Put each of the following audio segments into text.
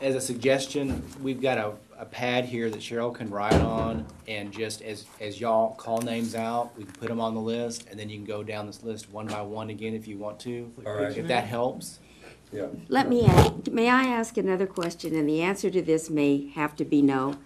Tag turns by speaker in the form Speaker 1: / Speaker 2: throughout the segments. Speaker 1: as a suggestion, we've got a, a pad here that Cheryl can write on, and just as, as y'all call names out, we can put them on the list, and then you can go down this list one by one again if you want to.
Speaker 2: All right.
Speaker 1: If that helps.
Speaker 2: Yeah.
Speaker 3: Let me, ask- may I ask another question, and the answer to this may have to be no.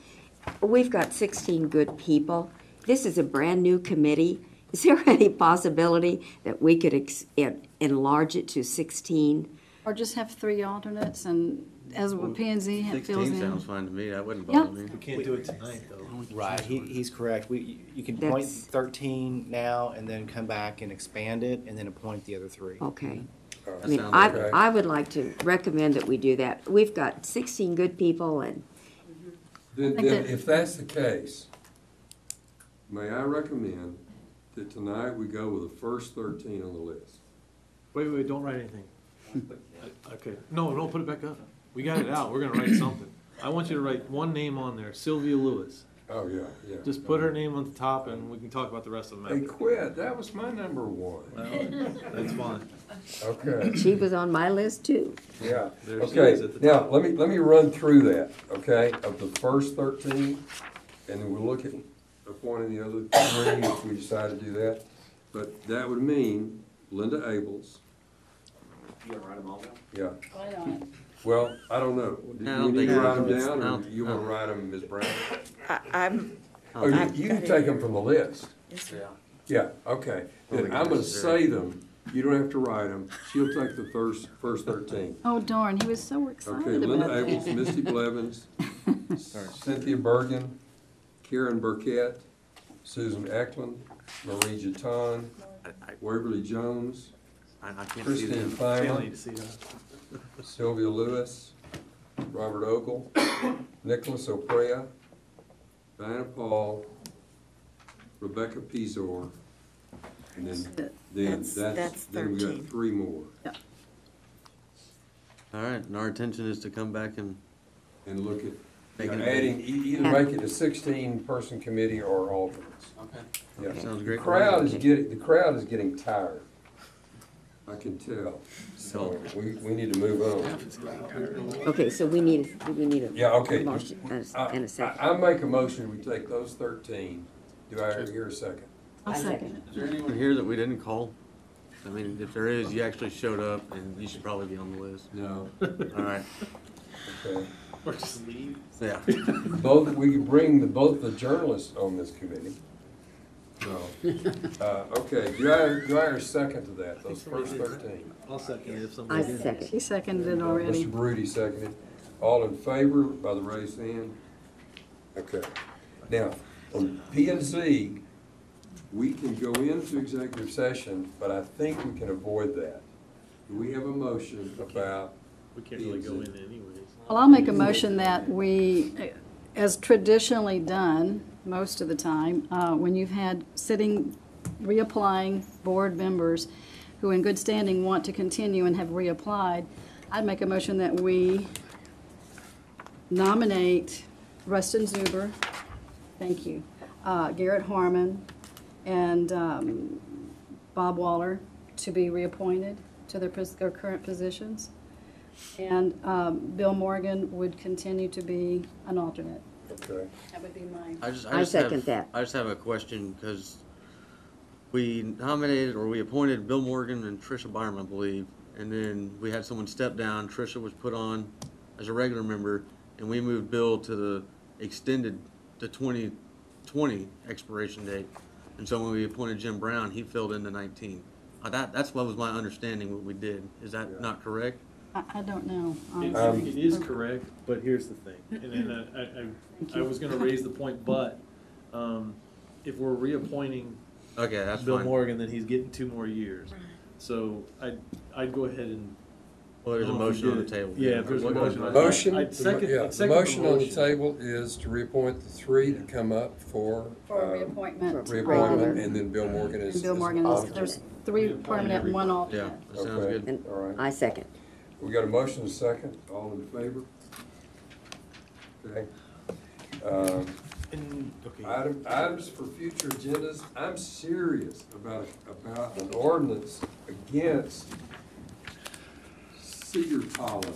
Speaker 3: We've got sixteen good people. This is a brand-new committee. Is there any possibility that we could ex- en- enlarge it to sixteen?
Speaker 4: Or just have three alternates and as with P and Z fills
Speaker 5: Sixteen sounds
Speaker 4: in.
Speaker 5: fine to me, that wouldn't
Speaker 4: Yeah.
Speaker 5: bother me.
Speaker 6: We can't do it tonight, though.
Speaker 1: Right, he, he's correct. We, you can point
Speaker 3: That's-
Speaker 1: thirteen now, and then come back and expand it, and then appoint the other three.
Speaker 3: Okay.
Speaker 2: All right.
Speaker 3: I mean,
Speaker 5: sounds
Speaker 3: I,
Speaker 2: okay.
Speaker 3: I would like to recommend that we do that. We've got sixteen good people, and
Speaker 2: Then,
Speaker 4: Like
Speaker 2: then
Speaker 4: the-
Speaker 2: if that's the case, may I recommend that tonight we go with the first thirteen on the list?
Speaker 6: Wait, wait, don't write anything. Okay, no, no, put it back up. We got it out, we're gonna write something. I want you to write one name on there, Sylvia Lewis.
Speaker 2: Oh, yeah, yeah.
Speaker 6: Just put her name on the top and we can talk about the rest of
Speaker 2: Hey,
Speaker 6: them
Speaker 2: quit, that was my number one.
Speaker 6: after. That's fine.
Speaker 2: Okay,
Speaker 3: she was on my list too.
Speaker 2: yeah,
Speaker 6: There she
Speaker 2: okay,
Speaker 6: is at the
Speaker 2: now, let me, let me run through that, okay, of the first thirteen, and then we'll look at appointing the other three if we decide to do that. But that would mean Linda Abels,
Speaker 1: You wanna write them all down?
Speaker 2: yeah,
Speaker 4: Right on it.
Speaker 2: well, I don't know. Do
Speaker 5: I
Speaker 2: you
Speaker 5: don't
Speaker 2: need
Speaker 5: think
Speaker 2: to
Speaker 5: I
Speaker 2: write
Speaker 5: can-
Speaker 2: them down,
Speaker 5: I
Speaker 2: or
Speaker 5: don't-
Speaker 2: you wanna write them, Ms. Brown?
Speaker 5: Oh,
Speaker 7: I- I'm,
Speaker 2: Oh, you,
Speaker 7: I've
Speaker 2: you
Speaker 7: got
Speaker 2: can
Speaker 7: it.
Speaker 2: take them from the list. Yeah, okay.
Speaker 5: Well,
Speaker 2: Then
Speaker 5: we
Speaker 2: I'm
Speaker 5: can
Speaker 2: gonna
Speaker 5: necessarily-
Speaker 2: say them. You don't have to write them. She'll take the first, first thirteen.
Speaker 4: Oh darn, he was so
Speaker 2: Okay,
Speaker 4: excited
Speaker 2: Linda
Speaker 4: about that.
Speaker 2: Abels, Misty Blevins, Cynthia Bergen, Karen Burkett, Susan Eklund, Marie Jeton,
Speaker 5: I, I-
Speaker 2: Waverly Jones,
Speaker 5: I, I can't see
Speaker 2: Christine
Speaker 5: them.
Speaker 6: Can't
Speaker 2: Feynman,
Speaker 6: wait to see that.
Speaker 2: Sylvia Lewis, Robert Ogle, Nicholas Oprea, Diana Paul, Rebecca Pizor, and then, then
Speaker 7: That's-
Speaker 2: that's,
Speaker 7: that's
Speaker 2: then we got
Speaker 7: 13.
Speaker 2: three more.
Speaker 5: All right, and our intention is to come back and,
Speaker 2: And look at,
Speaker 5: Make it a-
Speaker 2: adding, e- either make it a sixteen-person committee or alternates. Okay.
Speaker 5: sounds
Speaker 2: The
Speaker 5: great.
Speaker 2: crowd is getting, the crowd is getting tired. I can tell. So we, we need to move on.
Speaker 3: Okay, so we need, we need a.
Speaker 2: Yeah, okay.
Speaker 3: motion And a-
Speaker 2: Uh, I,
Speaker 3: and a second.
Speaker 2: I I make a motion, we take those thirteen. Do I hear a second?
Speaker 4: I'll second it.
Speaker 5: Is there anyone here that we didn't call? I mean, if there is, you actually showed up and you should probably be on the list.
Speaker 2: No.
Speaker 5: All right,
Speaker 2: Okay.
Speaker 6: Or just leave.
Speaker 5: yeah.
Speaker 2: Both, we could bring the, both the journalists on this committee. No. Uh, okay, do I, do I hear a second to that, those first thirteen?
Speaker 6: I'll second it if
Speaker 3: I
Speaker 6: somebody did.
Speaker 3: second.
Speaker 4: He seconded it already.
Speaker 2: Mr. Rudy seconded. All in favor by the raised hand? Okay. Now, on P and Z, we can go into executive session, but I think we can avoid that. Do we have a motion about,
Speaker 6: We can't really go in anyways.
Speaker 4: Well, I'll make a motion that we, as traditionally done, most of the time, uh, when you've had sitting, reapplying board members who in good standing want to continue and have reapplied, I'd make a motion that we nominate Rustin Zuber, thank you, uh, Garrett Harmon, and um, Bob Waller to be reappointed to their pos- their current positions. And um, Bill Morgan would continue to be an alternate.
Speaker 2: okay,
Speaker 4: That would be my.
Speaker 5: I just,
Speaker 3: I
Speaker 5: I just have-
Speaker 3: second that.
Speaker 5: I just have a question, because we nominated or we appointed Bill Morgan and Trisha Byram, I believe, and then we had someone step down, Trisha was put on as a regular member, and we moved Bill to the extended, the twenty twenty expiration date. And so when we appointed Jim Brown, he filled in the nineteen. Uh, That, that's what was my understanding what we did, is
Speaker 2: Yeah.
Speaker 5: that not correct?
Speaker 4: I, I don't know.
Speaker 6: It-
Speaker 4: Um,
Speaker 2: Um,
Speaker 6: It is correct, but here's the thing, and then I- I, I, I was gonna raise the point, but, um, if we're reappointing
Speaker 5: Okay, that's
Speaker 6: Bill
Speaker 5: fine.
Speaker 6: Morgan, then he's getting two more years. So I'd, I'd go ahead and.
Speaker 5: Well, there's a
Speaker 6: Oh, if
Speaker 5: motion
Speaker 6: you
Speaker 5: on the
Speaker 6: did it.
Speaker 5: table.
Speaker 6: Yeah, if there's a
Speaker 5: What-
Speaker 6: motion on the table.
Speaker 2: Motion,
Speaker 6: I'd second-
Speaker 2: yeah,
Speaker 6: I'd
Speaker 2: the
Speaker 6: second the
Speaker 2: motion on the
Speaker 6: motion.
Speaker 2: table is to reappoint the three to come up for,
Speaker 4: For a
Speaker 2: uh,
Speaker 4: reappointment.
Speaker 2: reappointment,
Speaker 3: Regular.
Speaker 2: and then Bill Morgan is.
Speaker 4: And Bill
Speaker 2: is
Speaker 4: Morgan, there's-
Speaker 2: alternate.
Speaker 4: there's three permanent, one
Speaker 5: Yeah,
Speaker 4: alternate.
Speaker 5: that sounds
Speaker 2: Okay.
Speaker 5: good.
Speaker 3: And
Speaker 2: All right.
Speaker 3: I second.
Speaker 2: We got a motion and a second, all in favor? Okay. Um,
Speaker 6: And, okay.
Speaker 2: Item, items for future agendas, I'm serious about, about an ordinance against cedar pollen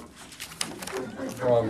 Speaker 2: from